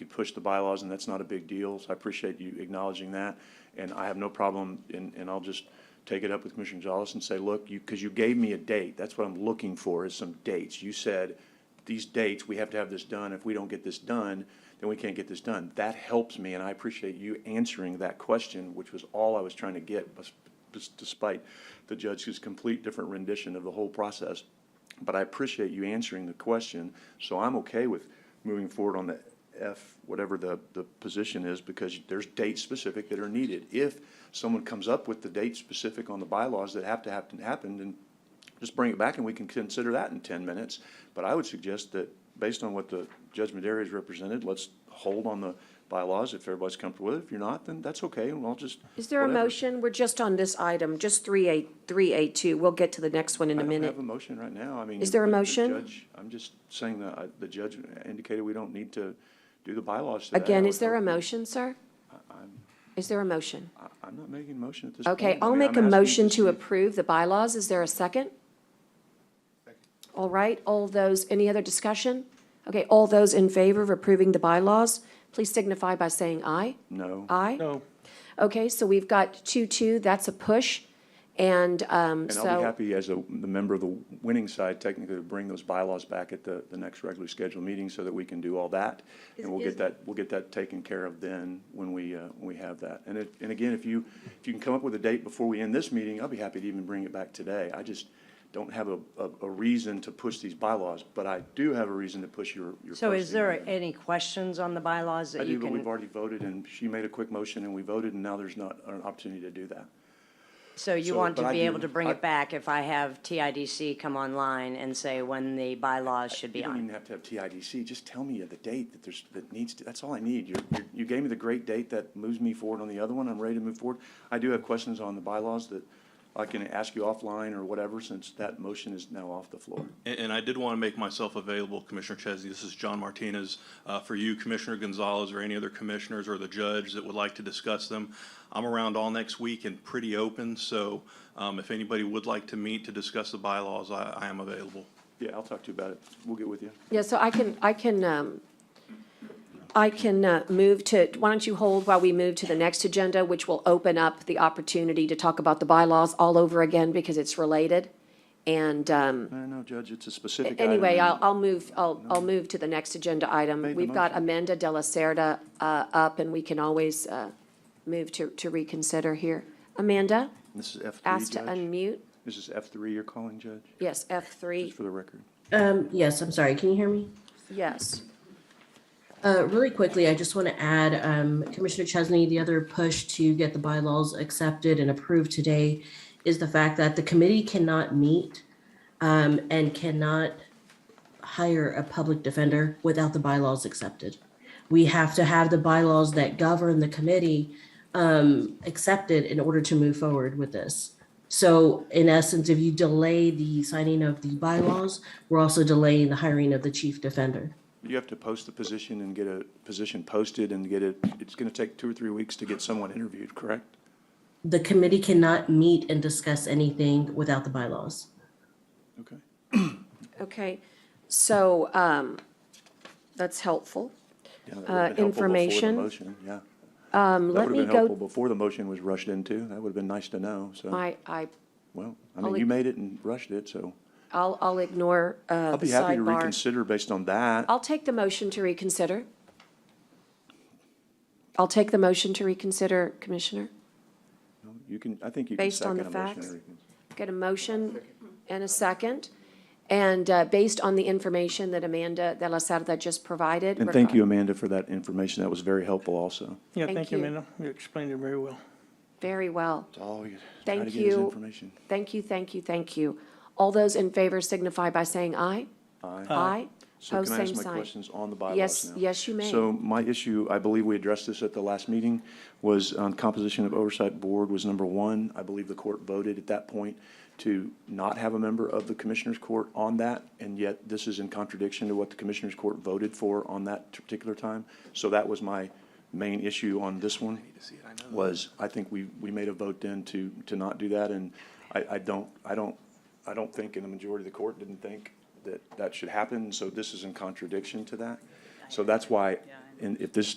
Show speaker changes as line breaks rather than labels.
could push the bylaws, and that's not a big deal, so I appreciate you acknowledging that. And I have no problem, and, and I'll just take it up with Commissioner Gonzalez and say, look, you, because you gave me a date, that's what I'm looking for, is some dates. You said, these dates, we have to have this done, if we don't get this done, then we can't get this done. That helps me, and I appreciate you answering that question, which was all I was trying to get, bes- bes- despite the judge's complete different rendition of the whole process. But I appreciate you answering the question, so I'm okay with moving forward on the F, whatever the, the position is, because there's dates specific that are needed. If someone comes up with the date specific on the bylaws that have to happen, happen, then just bring it back and we can consider that in ten minutes. But I would suggest that, based on what the Judge Madera has represented, let's hold on the bylaws if everybody's comfortable with it. If you're not, then that's okay, and I'll just.
Is there a
whatever.
motion? We're just on this item, just 38382. We'll get to the next one in a
I don't have
minute.
a motion right now, I mean.
Is there a
the- the
motion?
judge- I'm just saying that uh, the judge indicated we don't need to do the bylaws today.
Again,
I
is
would
there a
hope-
motion, sir? Is there a motion?
I- I'm not making a motion at this point.
Okay,
I
I'll
mean,
make
I'm
a
asking
motion
see
to
if-
approve the bylaws. Is there a second? All right, all those, any other discussion? Okay, all those in favor of approving the bylaws, please signify by saying aye.
No.
Aye?
No.
Okay, so we've got two-two, that's a push, and, um,
And
so.
I'll be happy as a, the member of the winning side technically to bring those bylaws back at the, the next regularly scheduled meeting so that we can do all that. And we'll get that, we'll get that taken care of then when we, uh, when we have that. And it, and again, if you, if you can come up with a date before we end this meeting, I'll be happy to even bring it back today. I just don't have a, a, a reason to push these bylaws, but I do have a reason to push your, your.
So is
posting.
there any questions on the bylaws
I
that you
do, but we've
can,
already voted and she made a quick motion and we voted and now there's not an opportunity to do that.
so you
so-
want
but
to
I
be
do-
able to bring
I-
it back if I have TIDC come online and say when the bylaws should be
You don't
on?
even have to have TIDC, just tell me the date that there's, that needs to, that's all I need. You're, you're- you gave me the great date that moves me forward on the other one, I'm ready to move forward. I do have questions on the bylaws that I can ask you offline or whatever, since that motion is now off the floor.
And, and I did want to make myself available, Commissioner Chesney, this is John Martinez, uh, for you, Commissioner Gonzalez, or any other commissioners or the judge that would like to discuss them. I'm around all next week and pretty open, so, um, if anybody would like to meet to discuss the bylaws, I, I am available.
Yeah, I'll talk to you about it, we'll get with you.
Yeah, so I can, I can, um, I can uh, move to, why don't you hold while we move to the next agenda, which will open up the opportunity to talk about the bylaws all over again because it's related. And um,
No, no, Judge, it's a specific item.
anyway,
and
I'll, I'll move, I'll, I'll move to the next agenda
Made
item.
the
We've got
motion.
Amanda De La Cerda uh, up, and we can always uh, move to, to reconsider here. Amanda,
This is F three,
asked to
Judge.
unmute.
This is F three you're calling, Judge,
Yes,
just
F3,
for the record.
Um, yes, I'm sorry, can you hear me?
yes.
Uh, really quickly, I just want to add, um, Commissioner Chesney, the other push to get the bylaws accepted and approved today is the fact that the committee cannot meet, um, and cannot hire a public defender without the bylaws accepted. We have to have the bylaws that govern the committee, um, accepted in order to move forward with this. So in essence, if you delay the signing of the bylaws, we're also delaying the hiring of the chief defender.
You have to post the position and get a position posted and get it, it's gonna take two or three weeks to get someone interviewed, correct?
The committee cannot meet and discuss anything without the bylaws.
Okay.
Okay, so um, that's helpful.
Yeah, that would've
Uh,
been helpful before the
information. Um,
Motion, yeah. That
Let
would
me
have been helpful
go,
before the motion was rushed into. That would have been nice to know, so,
I, I,
well, I
I'll
mean,
leave-
you made it and rushed it, so.
I'll, I'll ignore uh,
I'll
the
be happy to
sidebar.
reconsider based on that.
I'll take the motion to reconsider. I'll take the motion to reconsider, Commissioner.
You can, I think you can
Based on
second
the
a motion.
facts?
and recon-
Get a motion and a second. And uh, based on the information that Amanda De La Sarda just provided.
And
we're-
thank you, Amanda, for that information. That was very helpful also.
Yeah,
Thank
thank you,
you.
Amanda. You explained it very well.
Very well.
It's all you- try to
Thank
get is
you.
information.
Thank you, thank you, thank you. All those in favor signify by saying aye. Aye. Aye.
So
Pose
can I ask
same
my
sign.
questions on the bylaws now?
Yes, yes, you may.
So my issue, I believe we addressed this at the last meeting, was um, composition of oversight board was number one. I believe the court voted at that point to not have a member of the commissioners' court on that, and yet this is in contradiction to what the commissioners' court voted for on that particular time. So that was my main issue on this one, was I think we, we made a vote then to, to not do that, and I, I don't, I don't, I don't think, and the majority of the court didn't think that that should happen, so this is in contradiction to that. So that's why and if this